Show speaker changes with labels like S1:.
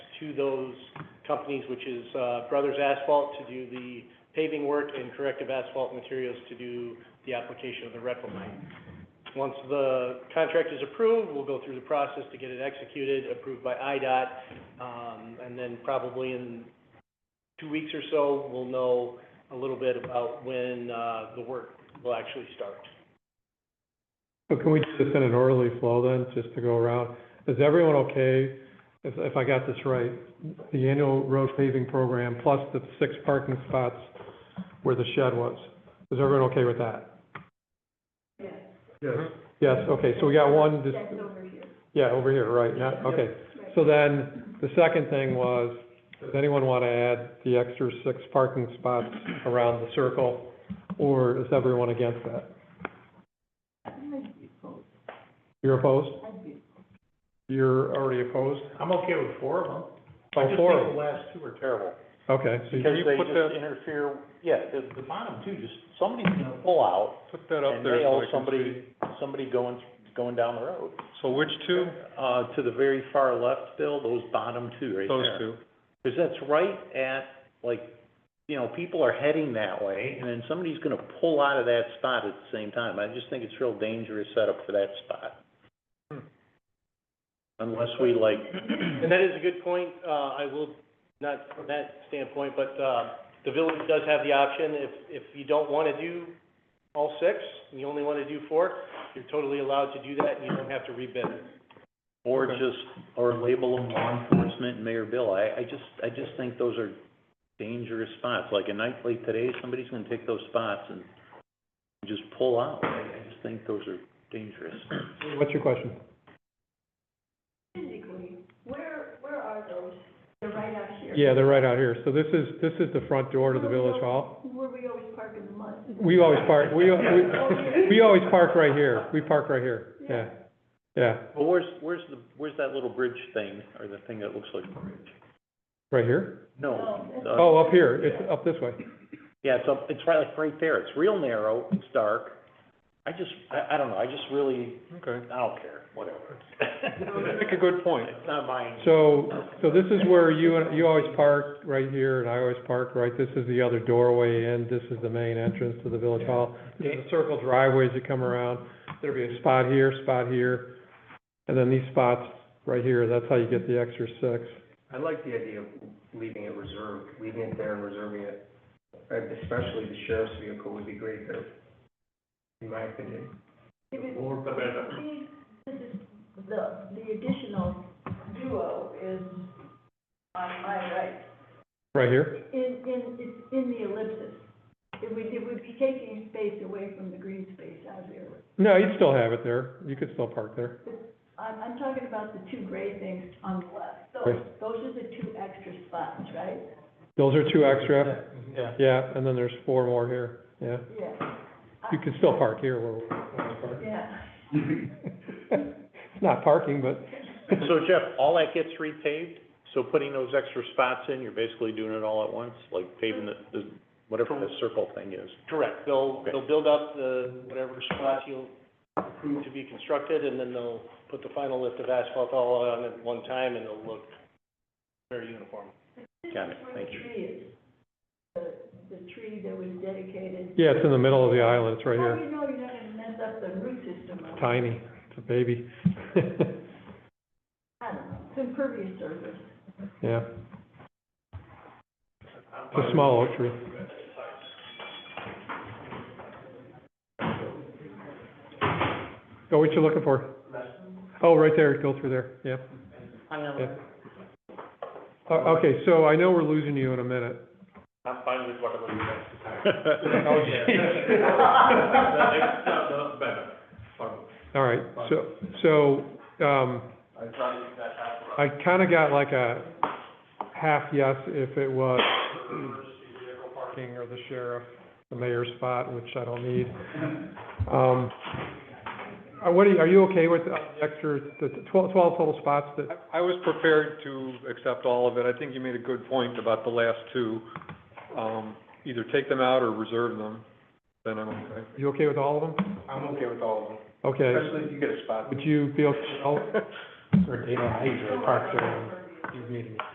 S1: to those companies, which is uh, Brothers Asphalt to do the paving work and Corrective Asphalt Materials to do the application of the Redwood line. Once the contract is approved, we'll go through the process to get it executed, approved by IDOT, um, and then probably in two weeks or so, we'll know a little bit about when uh, the work will actually start.
S2: So can we do this in an orderly flow then, just to go around? Is everyone okay, if, if I got this right, the annual road paving program plus the six parking spots where the shed was? Is everyone okay with that?
S3: Yes.
S2: Yes, okay, so we got one, just,
S4: That's over here.
S2: yeah, over here, right, not, okay.
S4: Right.
S2: So then, the second thing was, does anyone want to add the extra six parking spots around the circle? Or is everyone against that?
S4: I'd be opposed.
S2: You're opposed?
S4: I'd be-
S2: You're already opposed?
S3: I'm okay with four of them.
S2: All Oh, four of them?
S3: I just think the last two are terrible,
S2: Okay, so
S3: because
S2: you
S3: they
S2: put that,
S3: just interfere, yeah, the, the bottom two, just, somebody's gonna pull out
S5: Put that up
S3: and
S5: there so I
S3: nail
S5: can see.
S3: somebody, somebody going, going down the road.
S5: So which two?
S3: Uh, to the very far left, Bill, those bottom two right there.
S5: Those two.
S3: Because that's right at, like, you know, people are heading that way, and then somebody's gonna pull out of that spot at the same time. I just think it's real dangerous setup for that spot.
S5: Hmm.
S3: Unless we like,
S1: And that is a good point, uh, I will, not from that standpoint, but, uh, the village does have the option, if, if you don't wanna do all six, and you only wanna do four, you're totally allowed to do that, and you don't have to rebid it.
S3: or
S5: Okay.
S3: just, or label them law enforcement and Mayor Bill. I, I just, I just think those are dangerous spots. Like a night like today, somebody's gonna take those spots and just pull out. I, I just think those are dangerous.
S2: what's your question?
S4: Physically, where, where are those? They're right out here.
S2: Yeah, they're right out here. So this is, this is the front door to the village hall.
S4: Where we always park in the mud.
S2: We always park, we, we, we always park right here. We park right here. Yeah, yeah.
S3: Well, where's, where's the, where's that little bridge thing, or the thing that looks like a bridge?
S2: Right here?
S3: No.
S4: No.
S3: uh,
S2: Oh, up here. It's up this way.
S3: Yeah, it's up, it's right, like, right there, it's real narrow, it's dark. I just, I, I don't know, I just really,
S5: Okay.
S3: I don't care, whatever.
S5: Make a good point.
S3: It's not mine.
S2: So, so this is where you, and you always park right here and I always park right. This is the other doorway in. This is the main entrance to the village hall. There's a circle driveways that come around. There'd be a spot here, spot here, and then these spots right here. That's how you get the extra six.
S6: I like the idea of leaving it reserved, leaving it there and reserving it. Uh, Especially the sheriff's vehicle would be great there, in my opinion.
S4: If it- See, This is, the, the additional duo is on my right,
S2: Right here?
S4: in, in, it's in the ellipsis. It would, it would be taking space away from the green space out here.
S2: No, you'd still have it there. You could still park there.
S4: I'm, I'm talking about the two gray things on the left. Those,
S2: Right.
S4: those are the two extra spots, right?
S2: Those are two extra.
S3: Yeah.
S2: Yeah, and then there's four more here. Yeah.
S4: Yeah.
S2: You could still park here where we're.
S4: Yeah.
S2: It's not parking, but.
S3: So Jeff, all that gets repaved, so putting those extra spots in, you're basically doing it all at once, like paving the, the, whatever the circle thing is.
S1: Correct, they'll,
S3: Okay.
S1: they'll build up the, whatever spots you'll approve to be constructed, and then they'll put the final lift of asphalt all on at one time, and it'll look very uniform.
S3: Got it, thank you.
S4: Where the tree is, the, the tree that was dedicated.
S2: Yeah, it's in the middle of the island. It's right
S4: How do
S2: here.
S4: you know you're not gonna mess up the root system? of it?
S2: Tiny. It's a baby.
S4: I don't know, it's impervious surface.
S2: Yeah. It's a small oak tree. Oh, what you looking for? Oh, right there. Go through there. Yep.
S1: I am,
S2: Yeah. O- Okay, so I know we're losing you in a minute.
S7: I'm fine with whatever you guys decide.
S2: Oh,
S7: That makes the- the better for me.
S2: All right, so, so, um,
S7: I try to do that half
S2: I kinda got like a half yes if it was parking or the sheriff, the mayor's spot, which I don't need. Um, uh, what are you, are you okay with uh, the extra, the twelve, twelve total spots that,
S5: I- I was prepared to accept all of it. I think you made a good point about the last two. Um, either take them out or reserve them, then I'm okay.
S2: you okay with all of them?
S6: I'm okay with all of them,
S2: Okay,
S6: especially if you get a spot.
S3: oh.
S2: would you be okay with all?
S6: Or Dana, I usually park there, you